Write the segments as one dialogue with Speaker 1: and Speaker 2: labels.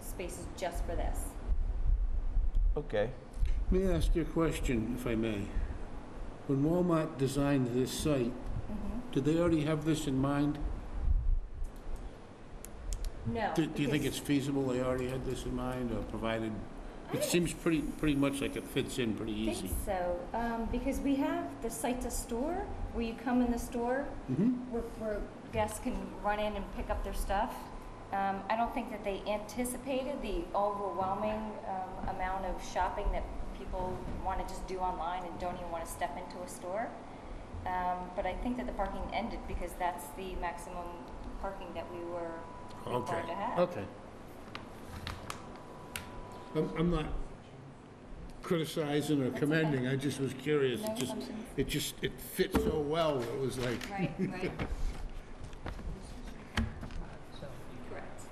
Speaker 1: spaces just for this.
Speaker 2: Okay.
Speaker 3: May I ask you a question, if I may? When Walmart designed this site,
Speaker 1: Mm-hmm.
Speaker 3: did they already have this in mind?
Speaker 1: No.
Speaker 3: Do do you think
Speaker 1: because-
Speaker 3: it's feasible they already had this in mind or provided? It seems pretty, pretty much like it fits in pretty
Speaker 1: I
Speaker 3: easy.
Speaker 1: think so, um, because we have the site to store, where you come in the store,
Speaker 3: Mm-hmm.
Speaker 1: where, where guests can run in and pick up their stuff. Um, I don't think that they anticipated the overwhelming, um, amount of shopping that people wanna just do online and don't even wanna step into a store. Um, but I think that the parking ended because that's the maximum parking that we were
Speaker 3: Okay,
Speaker 1: required to have.
Speaker 3: okay. I'm, I'm not criticizing or commending, I just was curious.
Speaker 1: No
Speaker 3: It just,
Speaker 1: assumptions.
Speaker 3: it just, it fit so well, it was like,
Speaker 1: Right, right.
Speaker 4: Correct.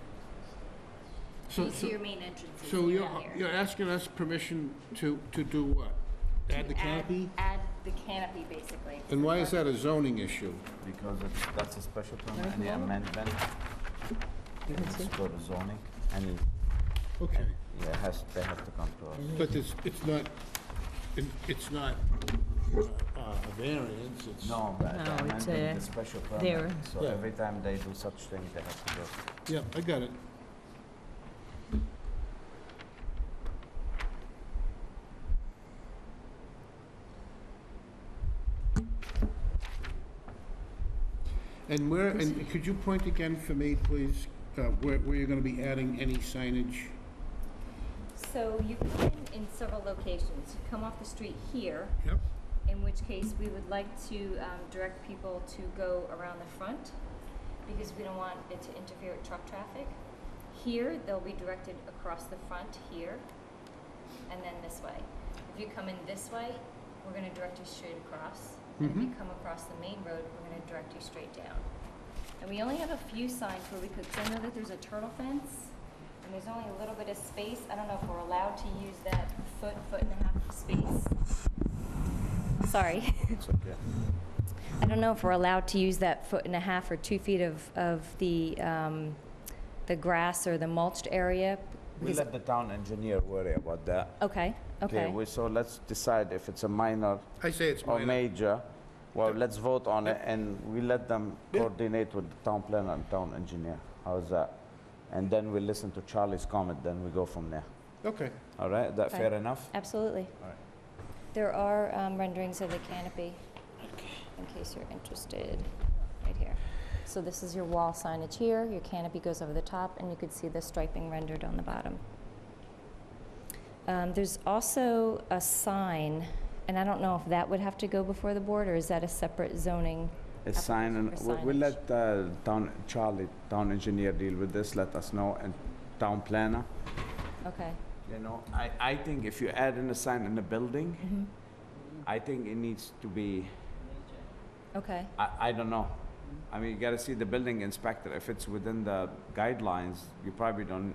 Speaker 3: so,
Speaker 4: These are
Speaker 3: so,
Speaker 4: your main entrances
Speaker 3: so
Speaker 4: here
Speaker 3: you're,
Speaker 4: out here.
Speaker 3: you're asking us permission to, to do what? Add the canopy?
Speaker 1: Add the canopy, basically.
Speaker 3: And why is that a zoning issue?
Speaker 2: Because it's, that's a special permit, any amendment, it's go to zoning, and
Speaker 3: Okay,
Speaker 2: yeah, has, they have to come to us.
Speaker 3: but it's, it's not, it- it's not uh, a variance, it's...
Speaker 2: No, but
Speaker 5: No,
Speaker 2: the
Speaker 5: it's
Speaker 2: amendment,
Speaker 5: a-
Speaker 2: the special
Speaker 5: there.
Speaker 2: permit, so
Speaker 3: Yeah.
Speaker 2: every time they do such thing, they have to go.
Speaker 3: Yeah, I got it. And where, and could you point again for me, please, uh, where where you're going to be adding any signage?
Speaker 1: So you come in in several locations. You come off the street here,
Speaker 3: Yep.
Speaker 1: in which case we would like to um, direct people to go around the front because we don't want it to interfere with truck traffic. Here, they'll be directed across the front here and then this way. If you come in this way, we're going to direct you straight across. And if you come across the main road, we're going to direct you straight down. And we only have a few signs where we could, 'cause I know that there's a turtle fence, and there's only a little bit of space. I don't know if we're allowed to use that foot, foot and a half of space. Sorry.
Speaker 2: It's okay.
Speaker 1: I don't know if we're allowed to use that foot and a half or two feet of, of the, um, the grass or the mulched area.
Speaker 2: We let the town engineer worry about that.
Speaker 1: Okay, okay.
Speaker 2: we- So let's decide if it's a minor
Speaker 3: I say it's
Speaker 2: or
Speaker 3: minor.
Speaker 2: major. Well, let's vote on it, and we let them
Speaker 3: Yeah.
Speaker 2: coordinate with the town planner and town engineer. How's that? And then we listen to Charlie's comment, then we go from there.
Speaker 3: Okay.
Speaker 2: All right, is that
Speaker 1: Okay.
Speaker 2: fair enough?
Speaker 1: Absolutely.
Speaker 2: Alright.
Speaker 1: There are um, renderings of the canopy, in case you're interested, right here. So this is your wall signage here, your canopy goes over the top, and you could see the striping rendered on the bottom. Um, There's also a sign, and I don't know if that would have to go before the board, or is that a separate zoning?
Speaker 2: A sign, and
Speaker 1: for
Speaker 2: we- we'll
Speaker 1: signage.
Speaker 2: let uh, town, Charlie, town engineer deal with this, let us know, and town planner.
Speaker 1: Okay,
Speaker 2: You know, I, I think if you add in a sign in a building, I think it needs to be,
Speaker 1: okay,
Speaker 2: I, I don't know. I mean, you gotta see the building inspector, if it's within the guidelines, you probably don't,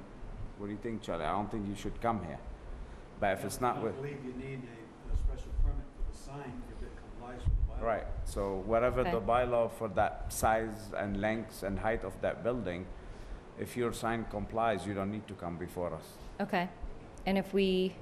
Speaker 2: what do you think, Charlie? I don't think you should come here. But if it's not with,
Speaker 6: I believe you need a, a special permit for the sign if it complies with the bylaw.
Speaker 2: right, so whatever the
Speaker 1: Okay.
Speaker 2: bylaw for that size and length and height of that building, if your sign complies, you don't need to come before us.
Speaker 1: okay. And if we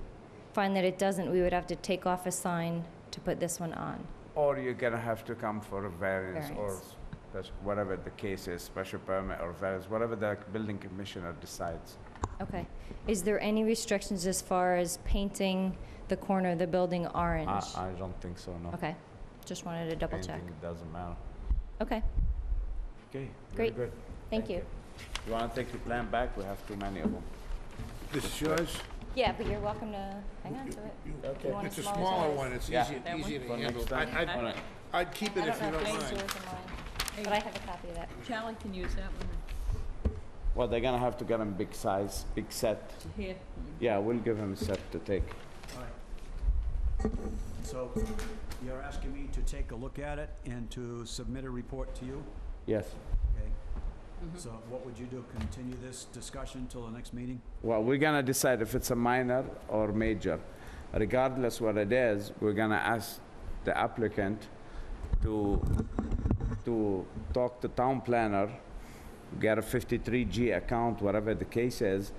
Speaker 1: find that it doesn't, we would have to take off a sign to put this one on.
Speaker 2: Or you're gonna have to come for a variance or
Speaker 1: Variance.
Speaker 2: spec- whatever the case is, special permit or variance, whatever the building commissioner decides.
Speaker 1: Okay. Is there any restrictions as far as painting the corner of the building
Speaker 2: I,
Speaker 1: orange?
Speaker 2: I don't think so, no.
Speaker 1: Okay, just wanted to double check.
Speaker 2: Anything, it doesn't matter.
Speaker 1: Okay,
Speaker 2: Okay, very
Speaker 1: Great.
Speaker 2: good.
Speaker 1: thank you.
Speaker 2: You wanna take your plan back? We have too many of them.
Speaker 3: This is yours?
Speaker 1: Yeah, but you're welcome to hang on to it. If you want
Speaker 3: It's a
Speaker 1: smaller
Speaker 3: smaller
Speaker 1: size.
Speaker 3: one, it's
Speaker 2: Yeah.
Speaker 3: easier
Speaker 5: That one?
Speaker 3: easier to
Speaker 2: For
Speaker 3: handle.
Speaker 2: next
Speaker 3: I-
Speaker 2: time. All
Speaker 3: I'd,
Speaker 2: right.
Speaker 3: I'd keep
Speaker 1: I
Speaker 3: it if
Speaker 1: don't
Speaker 3: you
Speaker 1: know
Speaker 3: don't
Speaker 1: if mine's
Speaker 3: mind.
Speaker 1: yours or mine, but I have a copy of that.
Speaker 5: Charlie can use that one
Speaker 2: Well, they're gonna have to get him big size, big set.
Speaker 5: here.
Speaker 2: Yeah, we'll give him a set to take.
Speaker 6: All right. So you're asking me to take a look at it and to submit a report to you,
Speaker 2: Yes.
Speaker 6: okay? So what would you do, continue this discussion till the next meeting?
Speaker 2: Well, we're gonna decide if it's a minor or major. Regardless what it is, we're gonna ask the applicant to, to talk to town planner, get a 53G account, whatever the case is,